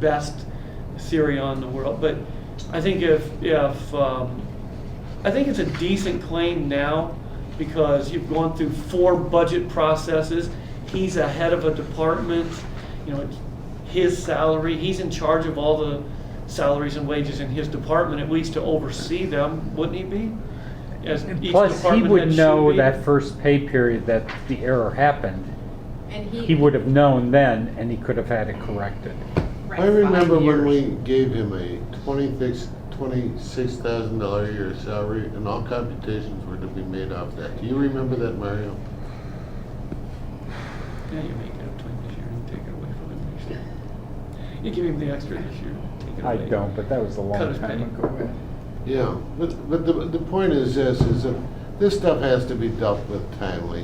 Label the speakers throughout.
Speaker 1: best theory on the world, but I think if, if, um, I think it's a decent claim now because you've gone through four budget processes. He's a head of a department, you know, it's his salary, he's in charge of all the salaries and wages in his department, at least to oversee them, wouldn't he be? As
Speaker 2: And
Speaker 1: each
Speaker 2: Plus, he
Speaker 1: department head
Speaker 2: would
Speaker 1: should
Speaker 2: know
Speaker 1: be.
Speaker 2: that first pay period that the error happened.
Speaker 3: And he.
Speaker 2: He would have known then, and he could have had it corrected.
Speaker 3: Right.
Speaker 4: I remember
Speaker 2: Five
Speaker 4: when we
Speaker 2: years.
Speaker 4: gave him a twenty-six, twenty-six thousand dollar a year salary, and all computations were to be made off that. Do you remember that, Mario?
Speaker 1: Yeah, you make it up twenty this year and take it away from him next year. You give him the extra this year, take it
Speaker 2: I
Speaker 1: away.
Speaker 2: don't, but that was a
Speaker 1: Cut
Speaker 2: long
Speaker 1: his
Speaker 2: time
Speaker 1: pay.
Speaker 2: ago.
Speaker 4: Yeah, but, but the, the point is this, is that this stuff has to be dealt with timely.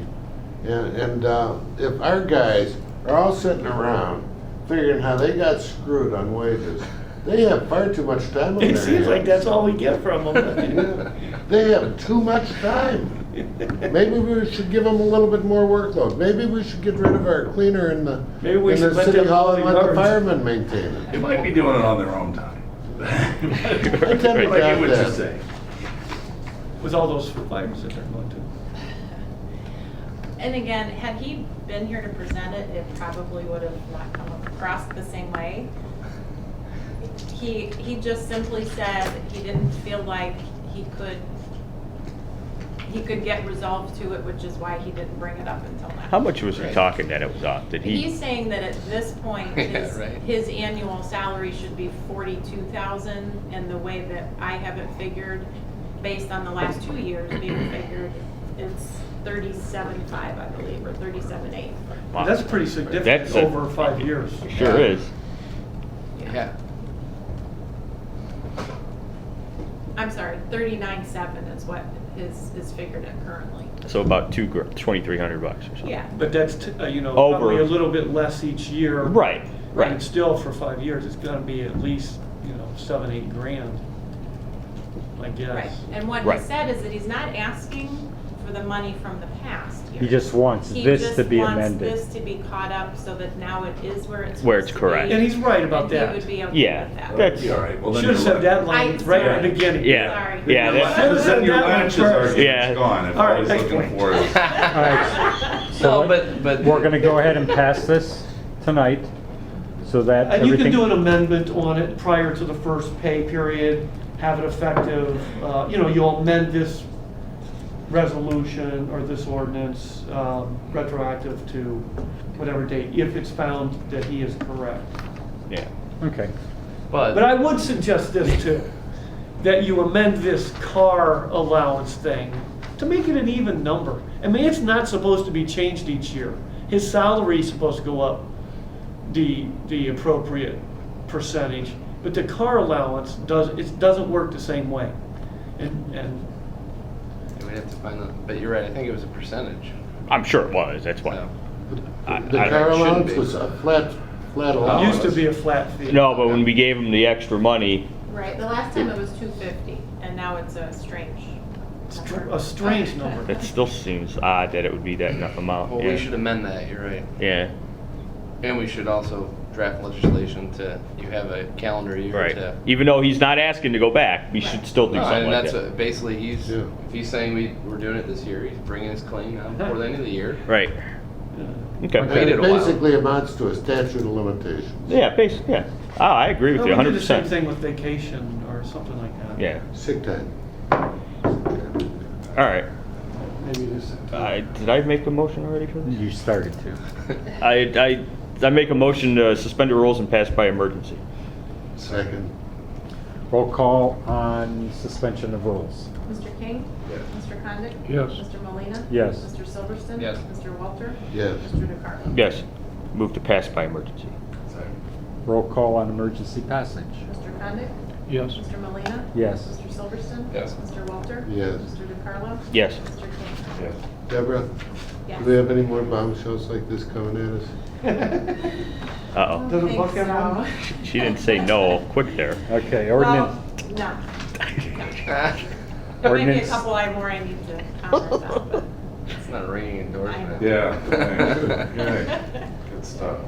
Speaker 4: And, and, uh, if our guys are all sitting around figuring how they got screwed on wages, they have far too much time on their
Speaker 1: It
Speaker 4: hands.
Speaker 1: seems like that's all we get from him.
Speaker 4: Yeah, They have too much time. Maybe we should give them a little bit more workload. Maybe we should get rid of our cleaner in the,
Speaker 1: Maybe we
Speaker 4: in the
Speaker 1: should let
Speaker 4: city
Speaker 1: them
Speaker 4: hall and
Speaker 1: do
Speaker 4: let the
Speaker 1: ours.
Speaker 4: firemen maintain it.
Speaker 5: They might be doing it on their own time. Like you
Speaker 4: I tend to doubt
Speaker 5: would
Speaker 4: that.
Speaker 5: just say.
Speaker 1: With all those fires that they're going to.
Speaker 3: And again, had he been here to present it, it probably would have not come across the same way. He, he just simply said he didn't feel like he could, he could get resolved to it, which is why he didn't bring it up until now.
Speaker 6: How much was he talking that it was off? Did he?
Speaker 3: He's saying that at this point, his, his annual salary should be forty-two thousand, and the way that I have it figured, based on the last two years being figured, it's thirty-seven five, I believe, or thirty-seven eight.
Speaker 6: Wow.
Speaker 1: That's pretty
Speaker 6: That's
Speaker 1: significant
Speaker 6: a-
Speaker 1: over five years.
Speaker 6: Sure is.
Speaker 7: Yeah,
Speaker 3: I'm sorry, thirty-nine seven is what is, is figured at currently.
Speaker 6: So about two, gr- 2,300 bucks or something.
Speaker 3: Yeah,
Speaker 1: But that's, t- uh, you know,
Speaker 6: Over.
Speaker 1: probably a little bit less each year.
Speaker 6: Right,
Speaker 1: Right,
Speaker 6: right.
Speaker 1: and still for five years, it's gonna be at least, you know, seven, eight grand, I
Speaker 3: right.
Speaker 1: guess.
Speaker 3: And what he
Speaker 6: Right.
Speaker 3: said is that he's not asking for the money from the past here.
Speaker 2: He just wants
Speaker 3: He
Speaker 2: this
Speaker 3: just
Speaker 2: to be
Speaker 3: wants
Speaker 2: amended.
Speaker 3: This to be caught up so that now it is where it's.
Speaker 6: Where
Speaker 3: supposed
Speaker 6: it's
Speaker 3: to be,
Speaker 6: correct.
Speaker 1: And he's right about
Speaker 3: And he
Speaker 1: that.
Speaker 3: would be okay with
Speaker 6: Yeah,
Speaker 3: that.
Speaker 6: that's,
Speaker 5: Be all right. Well, then
Speaker 1: Should've
Speaker 5: you're
Speaker 1: said that
Speaker 5: left.
Speaker 1: line
Speaker 3: I-
Speaker 1: right at the
Speaker 3: sorry.
Speaker 1: beginning.
Speaker 6: yeah,
Speaker 3: Sorry.
Speaker 6: yeah.
Speaker 5: Your
Speaker 6: that-
Speaker 1: Should've said
Speaker 5: latches- Your
Speaker 1: that one
Speaker 5: latches are,
Speaker 1: first.
Speaker 6: Yeah.
Speaker 5: it's gone. If
Speaker 1: All right,
Speaker 5: I was
Speaker 1: next
Speaker 5: looking
Speaker 1: point.
Speaker 5: for it.
Speaker 2: All right,
Speaker 7: no,
Speaker 2: So-
Speaker 7: but, but.
Speaker 2: we're gonna go ahead and pass this tonight, so that
Speaker 1: And you
Speaker 2: everything.
Speaker 1: can do an amendment on it prior to the first pay period, have it effective, uh, you know, you'll amend this resolution or this ordinance um, retroactive to whatever date, if it's found that he is correct.
Speaker 6: Yeah.
Speaker 2: Okay,
Speaker 1: But I would suggest this too, that you amend this car allowance thing to make it an even number. I mean, it's not supposed to be changed each year. His salary's supposed to go up the, the appropriate percentage, but the car allowance does, it doesn't work the same way. And, and
Speaker 7: We'd have to find out, but you're right, I think it was a percentage.
Speaker 6: I'm sure it was. That's why.
Speaker 7: so.
Speaker 6: I-
Speaker 4: The
Speaker 6: I-
Speaker 4: car
Speaker 7: It shouldn't
Speaker 4: allowance
Speaker 7: be.
Speaker 4: was a flat, flat
Speaker 1: it
Speaker 4: allowance.
Speaker 1: used to be a flat fee.
Speaker 6: No, but when we gave him the extra money,
Speaker 3: Right, the last time it was two fifty, and now it's a strange.
Speaker 1: Str- A strange number.
Speaker 6: that still seems odd that it would be that enough amount.
Speaker 7: Well,
Speaker 6: yeah.
Speaker 7: we should amend that, you're right.
Speaker 6: Yeah.
Speaker 7: And we should also draft legislation to, you have a calendar year
Speaker 6: Right.
Speaker 7: to.
Speaker 6: Even though he's not asking to go back, we
Speaker 3: Right.
Speaker 6: should still do
Speaker 7: No,
Speaker 6: something
Speaker 7: and
Speaker 6: like
Speaker 7: that's
Speaker 6: that.
Speaker 7: what- Basically, he's,
Speaker 4: Yeah.
Speaker 7: if he's saying we, we're doing it this year, he's bringing his claim now before the end of the year.
Speaker 6: right.
Speaker 1: Uh,
Speaker 4: And
Speaker 6: Okay.
Speaker 7: Wait.
Speaker 4: it
Speaker 7: Waited a while.
Speaker 4: basically amounts to a statute of limitations,
Speaker 6: Yeah. Basically. Yeah. Oh, I agree with
Speaker 1: Well,
Speaker 6: you
Speaker 1: We
Speaker 6: 100.
Speaker 1: did the same
Speaker 6: percent
Speaker 1: thing with vacation or something like that.
Speaker 6: Yeah.
Speaker 4: sick time.
Speaker 6: All right.
Speaker 4: Maybe it is.
Speaker 6: I, did I make a motion already for this?
Speaker 2: you started to.
Speaker 6: I, I, I make a motion to suspend the rules and pass by emergency.
Speaker 4: Second.
Speaker 2: Roll call on suspension of rules.
Speaker 3: Mr. King?
Speaker 4: Yes.
Speaker 3: Mr. Condit?
Speaker 4: Yes.
Speaker 3: Mr. Molina.
Speaker 2: Yes.
Speaker 3: Mr. Silverston?
Speaker 7: Yes.
Speaker 3: Mr. Walter?
Speaker 4: Yes.
Speaker 3: Mr. DeCarlo?
Speaker 6: Yes. Move to pass by emergency.
Speaker 2: Roll call on emergency passage.
Speaker 3: Mr. Condit?
Speaker 1: Yes.
Speaker 3: Mr. Molina.
Speaker 2: Yes.
Speaker 3: Mr. Silverston?
Speaker 7: Yes.
Speaker 3: Mr. Walter?
Speaker 4: Yes.
Speaker 3: Mr. DeCarlo?
Speaker 6: Yes.
Speaker 3: Mr. King?
Speaker 4: Deborah, do we
Speaker 3: Yes.
Speaker 4: have any more bombshells like this coming at us?
Speaker 6: Uh-oh.
Speaker 1: Does it
Speaker 3: Think
Speaker 1: buck
Speaker 3: so.
Speaker 1: everyone?
Speaker 6: Oh. She didn't say no quick there.
Speaker 2: Okay,
Speaker 3: Well,
Speaker 2: ordinance,
Speaker 3: no. There may be a
Speaker 2: ordinance,
Speaker 3: couple I more I need to comment on,
Speaker 7: It's not a ringing endorsement.
Speaker 5: Yeah.
Speaker 3: but.
Speaker 5: Good stuff.